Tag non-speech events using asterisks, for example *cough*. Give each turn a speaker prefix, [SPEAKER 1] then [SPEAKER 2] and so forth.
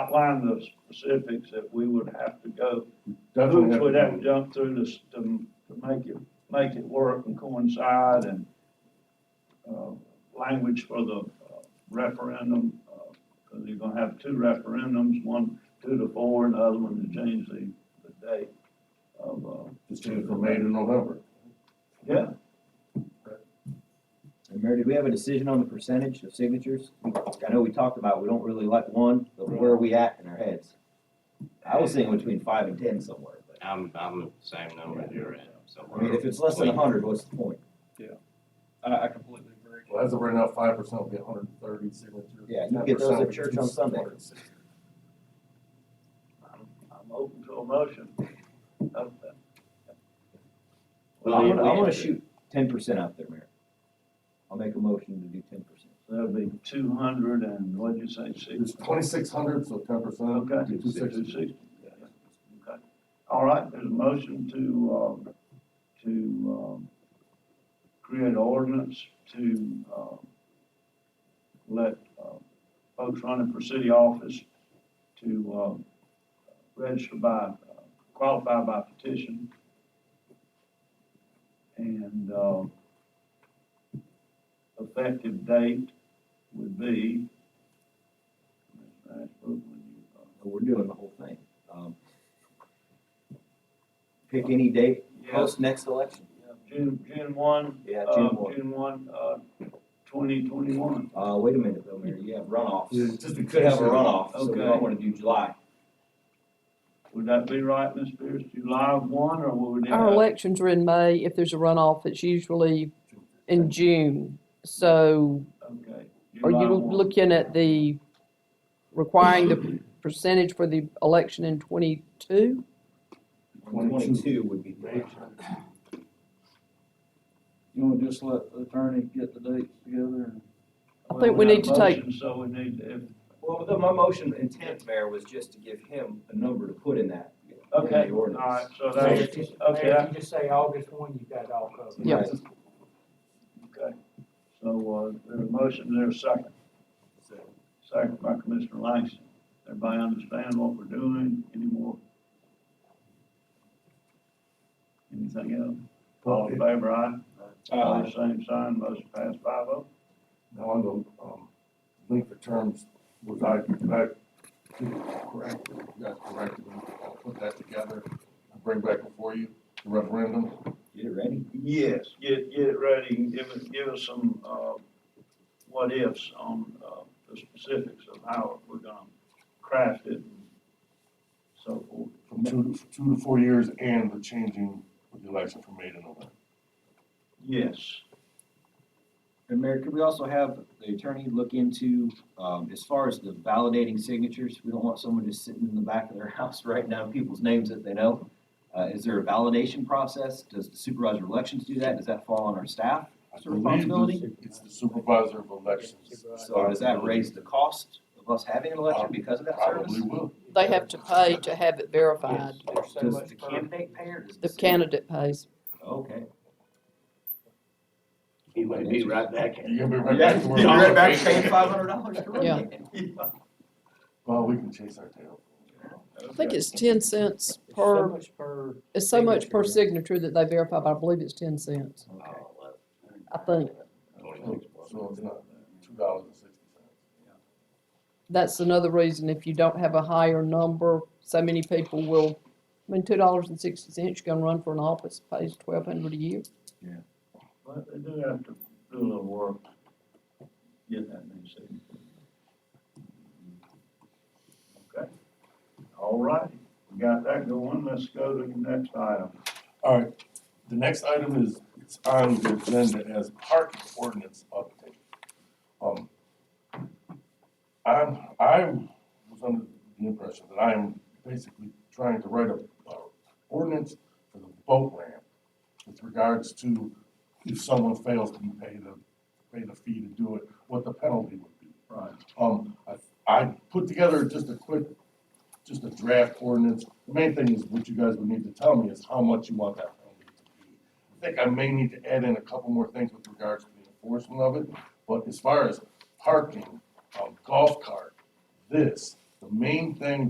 [SPEAKER 1] outline the specifics that we would have to go.
[SPEAKER 2] Definitely
[SPEAKER 1] Hoops
[SPEAKER 2] have
[SPEAKER 1] we'd
[SPEAKER 2] to
[SPEAKER 1] have to
[SPEAKER 2] go.
[SPEAKER 1] jump through this to, to make it, make it work and coincide and, uh, language for the uh, referendum, uh, cause you're gonna have two referendums, one two to four and the other one to change the, the date of, uh,
[SPEAKER 2] Just do it from May to November.
[SPEAKER 1] yeah,
[SPEAKER 3] And Mayor, do we have a decision on the percentage of signatures? I know we talked about, we don't really like one, but where are we at in our heads? I was thinking between five and ten somewhere, but,
[SPEAKER 4] I'm, I'm the same number you're at, so.
[SPEAKER 3] I mean, if it's less than a hundred, what's the point?
[SPEAKER 5] I, I completely agree.
[SPEAKER 2] Well, as of right now, five percent will be hundred and thirty signatures.
[SPEAKER 3] Yeah, you get
[SPEAKER 2] 10%
[SPEAKER 3] those at
[SPEAKER 2] will be
[SPEAKER 3] church on Sunday.
[SPEAKER 2] 260.
[SPEAKER 1] I'm, I'm open to a motion. Uh,
[SPEAKER 3] I wanna, I wanna shoot ten percent out there, Mayor. I'll make a motion to do ten percent.
[SPEAKER 1] That'd be two hundred and, what'd you say, six?
[SPEAKER 2] It's twenty-six hundred, so ten percent.
[SPEAKER 1] Okay.
[SPEAKER 2] Two sixty.
[SPEAKER 1] 260. Okay. All right, there's a motion to, uh, to, um, create an ordinance to, uh, let, uh, folks running for city office to, uh, register by, uh, qualify by petition. And, uh, effective date would be, Ms. Ashbrook, when you, uh,
[SPEAKER 3] We're doing the whole thing. Um, Pick any date,
[SPEAKER 1] Yes,
[SPEAKER 3] post next election.
[SPEAKER 1] June, June one.
[SPEAKER 3] Yeah,
[SPEAKER 1] uh,
[SPEAKER 3] June one.
[SPEAKER 1] June one, uh, twenty twenty-one.
[SPEAKER 3] Uh, wait a minute though, Mayor, you have runoffs.
[SPEAKER 2] Yeah, just in
[SPEAKER 3] You could have
[SPEAKER 2] case
[SPEAKER 3] a
[SPEAKER 2] you-
[SPEAKER 3] runoff, so we might
[SPEAKER 1] Okay.
[SPEAKER 3] wanna do July.
[SPEAKER 1] Would that be right, Ms. Pierce? July one, or what would it?
[SPEAKER 6] Our elections are in May. If there's a runoff, it's usually in June. So
[SPEAKER 1] Okay.
[SPEAKER 6] are
[SPEAKER 1] July
[SPEAKER 6] you
[SPEAKER 1] one.
[SPEAKER 6] looking at the, requiring the percentage for the election in twenty-two?
[SPEAKER 3] Twenty-two would be
[SPEAKER 2] May.
[SPEAKER 3] great.
[SPEAKER 5] You wanna just let the attorney get the dates together and?
[SPEAKER 6] I think we
[SPEAKER 1] Well,
[SPEAKER 6] need to
[SPEAKER 1] have a
[SPEAKER 6] take-
[SPEAKER 1] motion, So we need, if,
[SPEAKER 3] Well, the- my motion intent, Mayor, was just to give him a number to put in that. in the
[SPEAKER 1] okay, all
[SPEAKER 3] ordinance.
[SPEAKER 1] right, so
[SPEAKER 7] Mayor,
[SPEAKER 1] that's,
[SPEAKER 7] if you-
[SPEAKER 1] okay.
[SPEAKER 7] Mayor, if you just say August one, you've got it all covered.
[SPEAKER 6] Yeah.
[SPEAKER 3] Right.
[SPEAKER 1] okay. So, uh, there's a motion, there's a second. Second by Commissioner Langston. Everybody understand what we're doing anymore? Anything else? All in favor, aye?
[SPEAKER 3] Uh,
[SPEAKER 1] All the same sign, motion passed five oh.
[SPEAKER 2] Now, on the, um, length of terms, was I, did I, did it correct, you guys corrected, me? I'll put that together, and bring back before you, the referendum.
[SPEAKER 3] Get it ready.
[SPEAKER 1] Yes, get, get it ready and give us, give us some, uh, what ifs on, uh, the specifics of how we're gonna craft it and so forth.
[SPEAKER 2] From two, to- two to four years and the changing of the election from May to November.
[SPEAKER 1] Yes,
[SPEAKER 3] And Mayor, could we also have the attorney look into, um, as far as the validating signatures? We don't want someone just sitting in the back of their *laughs* house writing down people's names that they know. Uh, is there a validation process? Does the supervisor of elections do that? Does that fall on our staff?
[SPEAKER 2] I
[SPEAKER 3] It's a
[SPEAKER 2] believe
[SPEAKER 3] responsibility?
[SPEAKER 2] It's the supervisor of elections.
[SPEAKER 7] uh,
[SPEAKER 3] So does that raise the cost of us having an election because of that service?
[SPEAKER 2] Probably will.
[SPEAKER 6] They have to pay to have it verified.
[SPEAKER 7] There's so
[SPEAKER 3] Does the
[SPEAKER 7] much per-
[SPEAKER 3] candidate pay or does the?
[SPEAKER 6] The
[SPEAKER 3] city?
[SPEAKER 6] candidate pays.
[SPEAKER 3] Okay.
[SPEAKER 4] He might be right back. at it.
[SPEAKER 2] You're gonna be right back to
[SPEAKER 3] You're
[SPEAKER 2] where.
[SPEAKER 3] right back paying five hundred dollars to
[SPEAKER 6] Yeah.
[SPEAKER 3] run it.
[SPEAKER 2] Well, we can chase our tail.
[SPEAKER 6] I think it's ten cents
[SPEAKER 7] there's so
[SPEAKER 6] per,
[SPEAKER 7] much per.
[SPEAKER 6] it's so much per signature that they verify, but I believe it's ten cents,
[SPEAKER 3] Okay.
[SPEAKER 4] Oh, well,
[SPEAKER 6] I think.
[SPEAKER 4] twenty-six bucks.
[SPEAKER 2] So it's not two dollars and sixty cents.
[SPEAKER 6] That's another reason if you don't have a higher number, so many people will, I mean, two dollars and sixty cents, you're gonna run for an office, pays twelve hundred a year.
[SPEAKER 1] but they do have to do a little work. Get that new city. Okay, all right, we got that going, let's go to the next item.
[SPEAKER 2] All right, the next item is, it's on the agenda as parking ordinance update. Um, I'm, I was under the impression that I am basically trying to write a, a ordinance for the boat ramp with regards to if someone fails to pay the, pay the fee to do it, what the penalty would be.
[SPEAKER 1] Right.
[SPEAKER 2] Um, I, I put together just a quick, just a draft ordinance. The main thing is what you guys would need to tell me is how much you want that penalty to be. I think I may need to add in a couple more things with regards to the enforcement of it, but as far as parking, um, golf cart, this, the The main thing